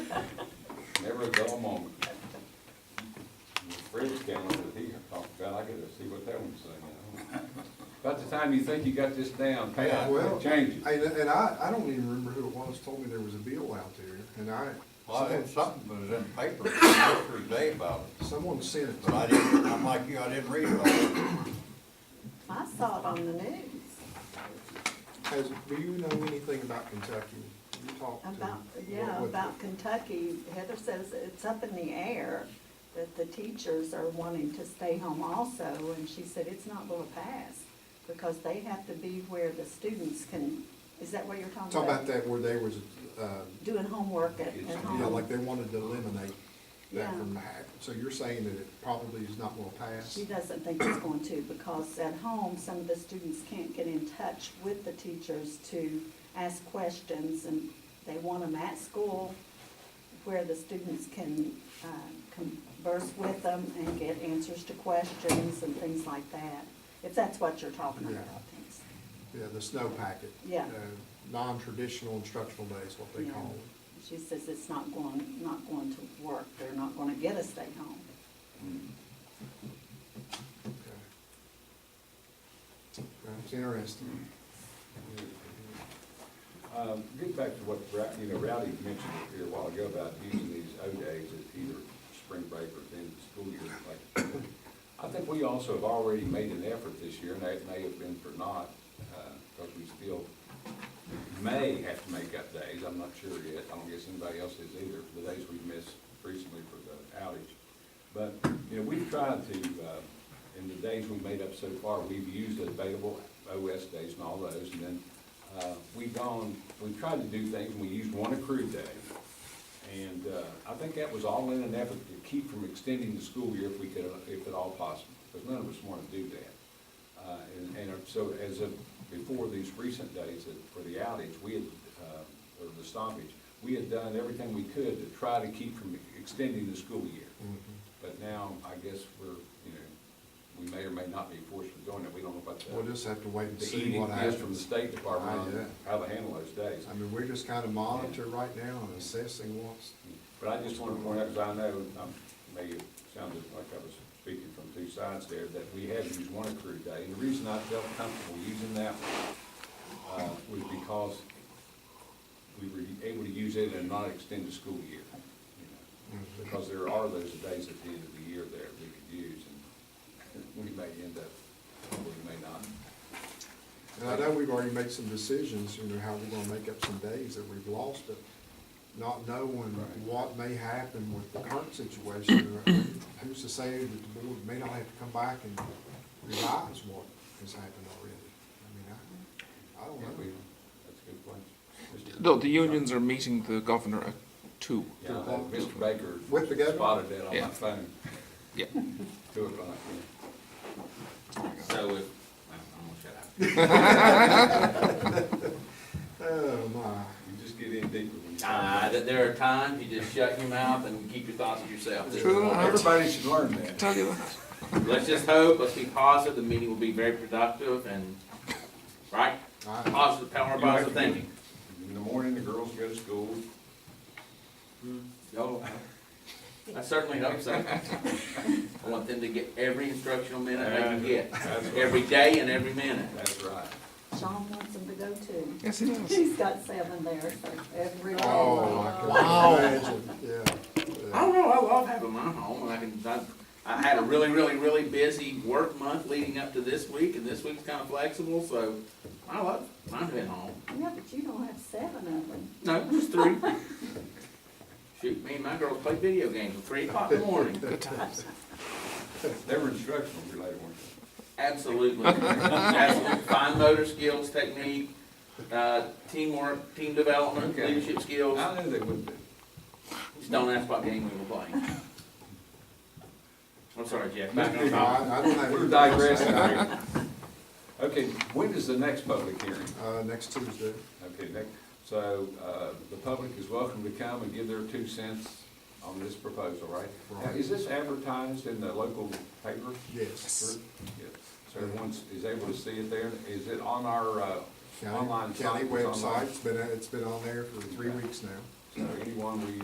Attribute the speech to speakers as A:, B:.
A: whatever the amount. Fred's down over here talked about, I gotta see what that one's saying. By the time you think you got this down, pat,
B: Well,
A: it changes.
B: And, and I, I don't even remember who it was told me there was a bill out there, and I,
C: Well, I had
B: someone-
C: something, but it was in the paper yesterday day about it,
B: someone sent it
C: but
B: to me.
C: I didn't, I'm like you, I didn't read about it.
D: I saw it on the news
B: Has, do you know anything about Kentucky? You talked to.
D: about, yeah,
B: what-
D: about Kentucky. Heather says it's up in the air that the teachers are wanting to stay home also, and she said it's not gonna pass because they have to be where the students can, is that what you're talking
B: Talk
D: about?
B: about that where they was, uh,
D: Doing homework at,
A: It's-
D: at
A: yeah,
B: you
D: home.
B: know, like they wanted to eliminate that
D: Yeah.
B: from the hack. So you're saying that it probably is not gonna pass?
D: She doesn't think it's going to, because at home, some of the students can't get in touch with the teachers to ask questions, and they want them at school where the students can uh, converse with them and get answers to questions and things like that, if that's what you're talking about, I think. so.
B: Yeah, the snow packet.
D: Yeah.
B: Uh, Non-traditional instructional day is what they
D: Yeah.
B: call it.
D: She says it's not going, not going to work, they're not gonna get a stay home.
A: Mm.
B: Okay. That's interesting.
D: Mm-hmm.
A: Um, Get back to what, Ra- you know, Rowdy mentioned here a while ago about using these O days as either spring break or then school year. like- I think we also have already made an effort this year, and that may have been for naught, because we still may have to make up days, I'm not sure yet, I don't guess anybody else is either, for the days we missed recently for the outage. But, you know, we've tried to, uh, in the days we made up so far, we've used available OS days and all those, and then, uh, we've gone, we've tried to do things, and we used one accrued day. And, uh, I think that was all in an effort to keep from extending the school year if we could, if at all possible, because none of us want to do that. Uh, and, and so as of, before these recent days that- for the outage, we had, uh, or the stoppage, we had done everything we could to try to keep from extending the school year.
B: Mm-hmm.
A: But now, I guess we're, you know, we may or may not be forced to doing it, we don't know about
B: We'll
A: the,
B: just have to wait and
A: the
B: see
A: edict
B: what
A: is from the
B: happens.
A: State Department,
B: Ah,
A: on how to handle those days.
B: I mean, we're just kind of monitor right now and assessing what's,
A: But I just want to point out, because I know, um, maybe it sounded like I was speaking from two sides there, that we have used one accrued day. And the reason I felt comfortable using that one, uh, was because we were able to use it and not extend the school year. you know. Because there are those days at the end of the year there we could use, and we may end up, or we may not.
B: And I know we've already made some decisions, you know, how we're gonna make up some days that we've lost it, not knowing what may happen with the current situation. or Who's to say that the board may not have to come back and revise what has happened already? I mean, I, I don't
A: Yeah, we-
B: know.
A: That's a good point. Mr.
E: No, the unions are meeting the governor at two.
A: Yeah, I know Mr. Baker
B: With the governor?
A: spotted that on my
E: Yeah.
A: phone,
E: Yeah.
A: two o'clock, yeah.
F: So if, I'm gonna shut up.
B: Oh, my.
A: You just get in deeper when you.
F: Uh, that there are times you just shut your mouth and keep your thoughts to yourself. This is
E: True.
F: one.
A: Everybody should learn that.
E: Tell you that.
F: Let's just hope, let's be positive, the meeting will be very productive and, right?
B: I-
F: Positive, power,
A: You have
F: positive
A: to-
F: thinking.
A: In the morning, the girls go to school.
F: No, I certainly hope so. I want them to get every instructional minute they can get, every day and every minute.
A: That's right.
D: Sean wants them to go too.
E: Yes, he does.
D: He's got seven there, so every.
B: Oh, I can imagine, yeah.
F: I don't know, I love having my home, and I can, I, I had a really, really, really busy work month leading up to this week, and this week's kinda flexible, so I love, mine being home.
D: Yeah, but you don't have seven of them.
F: No, just three. Shoot, me and my girls play video games till three o'clock in the morning.
E: Good times.
A: They were instructional related, weren't
F: Absolutely. Absolutely. Fine motor skills, technique, uh, teamwork, team development,
A: Okay.
F: leadership
A: they?
F: skills.
A: I knew they would be.
F: Just don't ask what game we were playing. I'm sorry, Jeff. Back on
B: No,
F: topic.
B: I, I don't have.
A: We're digressing here. Okay, when is the next public hearing?
B: Uh, next Tuesday.
A: Okay, next, so, uh, the public is welcome to come and give their two cents on this proposal, right? Now,
B: Right.
A: Is this advertised in the local paper?
B: Yes.
A: Yeah. So everyone's, is able to see it there? Is it on our, uh,
B: County,
A: online site?
B: county
A: It's online.
B: website's been, it's been on there for three weeks now.
A: So anyone we